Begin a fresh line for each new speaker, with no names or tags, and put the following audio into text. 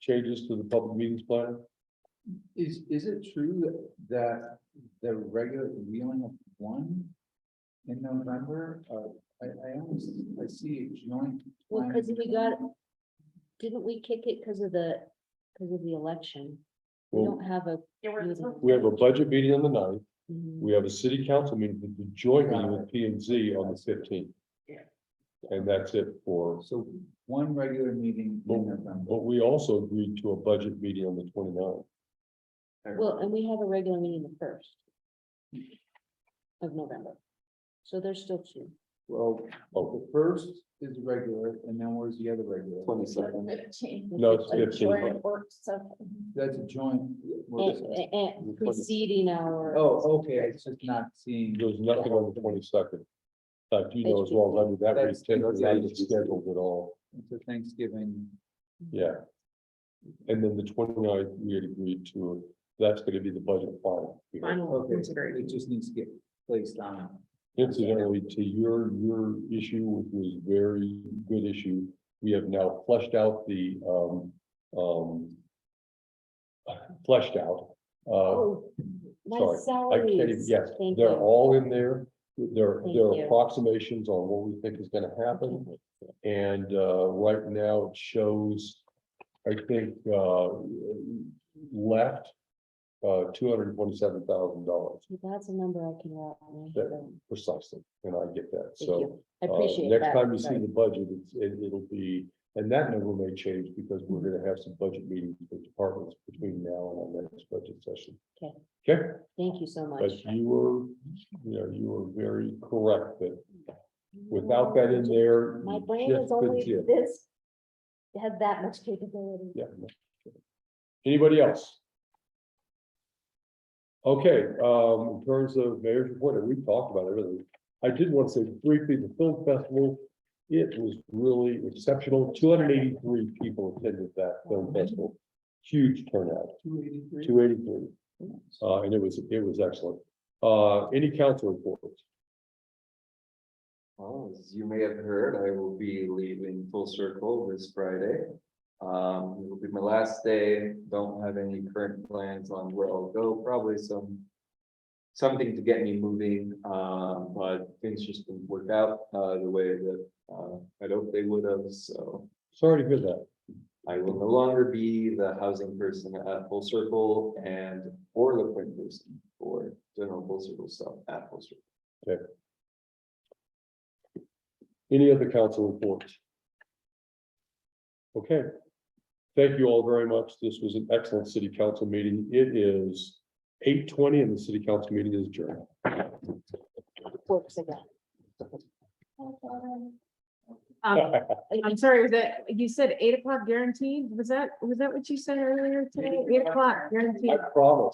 changes to the public meetings plan?
Is, is it true that the regular, we only have one in November? Uh, I, I almost, I see a joint.
Well,
plan.
'cause we got- Didn't we kick it because of the, because of the election? We
Well,
don't have a.
Mm-hmm.
meeting.
we have a budget meeting on the ninth,
Mhm.
we have a city council meeting, the joint meeting with P and Z on the fifteenth.
Yeah.
And that's it for,
So one regular meeting in November.
but we also agreed to a budget meeting on the 29th.
Well, and we have a regular meeting the first of November. So there's still two.
Well,
Oh,
the first is regular and then where's the other regular?
Fifteen,
no, it's
a
fifteen,
joint work session.
That's a joint. work
And,
session.
and- and preceding our.
Oh, okay, it's just not seeing.
there's nothing on the twenty-second. In fact, you know as well, as I do, that
That's-
week's not
that's-
scheduled at all,
It's a Thanksgiving.
yeah. And then the 29th, we had agreed to, that's gonna be the budget final. hearing.
Final
Okay,
consideration.
it just needs to get placed on.
Incidentally, to your, your issue, which was very good issue, we have now flushed out the, um, um. Fleshed out, uh,
Oh, my
sorry, I can't even,
salaries.
yes,
Oh, Thank
they're
you.
all in there. There,
Thank
there are
you.
approximations on what we think is gonna happen, and, uh, right now it shows, I think, uh, left. Uh, two hundred and twenty-seven thousand dollars
That's a number I can wrap my head
That-
around.
precisely, and I get that,
Thank
so.
you. I
Uh,
appreciate that.
Next time you see
Sorry.
the budget, it's, it, it'll be, and that number may change because we're gonna have some budget meetings with departments between now and our next budget session.
Okay.
Okay,
Thank you so much.
but you were, you know, you were very correct that without that in there.
My
you
brain
just
is
couldn't
only
see it.
this, it had that much capability.
Yeah. no. Anybody else? Okay, um, in terms of mayor's report, we've talked about everything. I did want to say briefly, the film festival, it was really exceptional. Two hundred eighty-three people attended that film festival. Huge turnout,
Two eighty-three.
two eighty-three, uh, and it was, it was excellent. Uh, any council reports?
Well, as you may have heard, I will be leaving Full Circle this Friday. Um, it will be my last day, don't have any current plans on where I'll go, probably some. Something to get me moving, um, but things just didn't work out, uh, the way that, uh, I'd hoped they would have, so.
Sorry to hear that.
I will no longer be the housing person at Full Circle and or the point person for general Full Circle stuff at Full Circle.
Any other council reports? Okay. Thank you all very much. This was an excellent city council meeting. It is eight twenty and the city council meeting is adjourned.
Works again.
Um, I'm sorry, was that, you said eight o'clock guaranteed? Was that, was that what you said earlier today? Eight o'clock guaranteed?
I promise.